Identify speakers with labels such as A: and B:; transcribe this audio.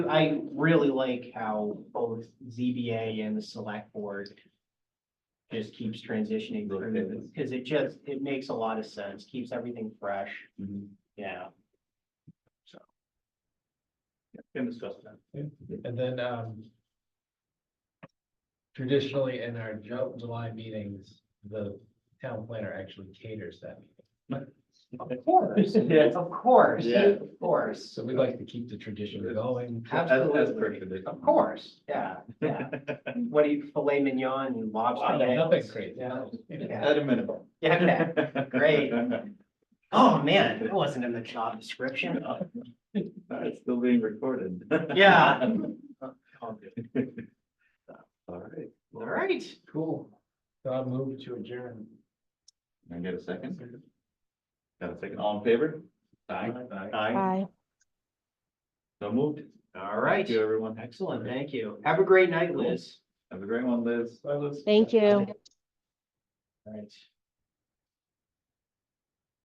A: I really like how both ZBA and the select board just keeps transitioning through this, because it just, it makes a lot of sense, keeps everything fresh, yeah.
B: Can discuss that.
C: And then, um. Traditionally, in our Ju- July meetings, the town planner actually caters that. meeting.
A: Of course, of course,
B: Yeah.
A: of course,
C: So we like to keep the tradition going.
A: absolutely, of course, yeah, yeah. What do you, filet mignon and lobster?
C: Wow, Nothing
A: tails?
C: crazy.
A: Yeah. Yeah.
B: At a minimum.
A: Yeah, okay. Great. Oh, man, that wasn't in the job description.
B: It's still being recorded.
A: Yeah. All
B: All right,
A: right,
C: Cool. So I'll move to adjourn.
B: can I get a second? Got a second, all in favor? Aye. Aye.
D: Bye.
B: So moved.
A: all
B: Thank
A: right.
B: you, everyone.
A: Excellent, thank you. Have a great night, Liz.
B: Have a great one, Liz.
C: So I was-
D: Thank you.
A: All right.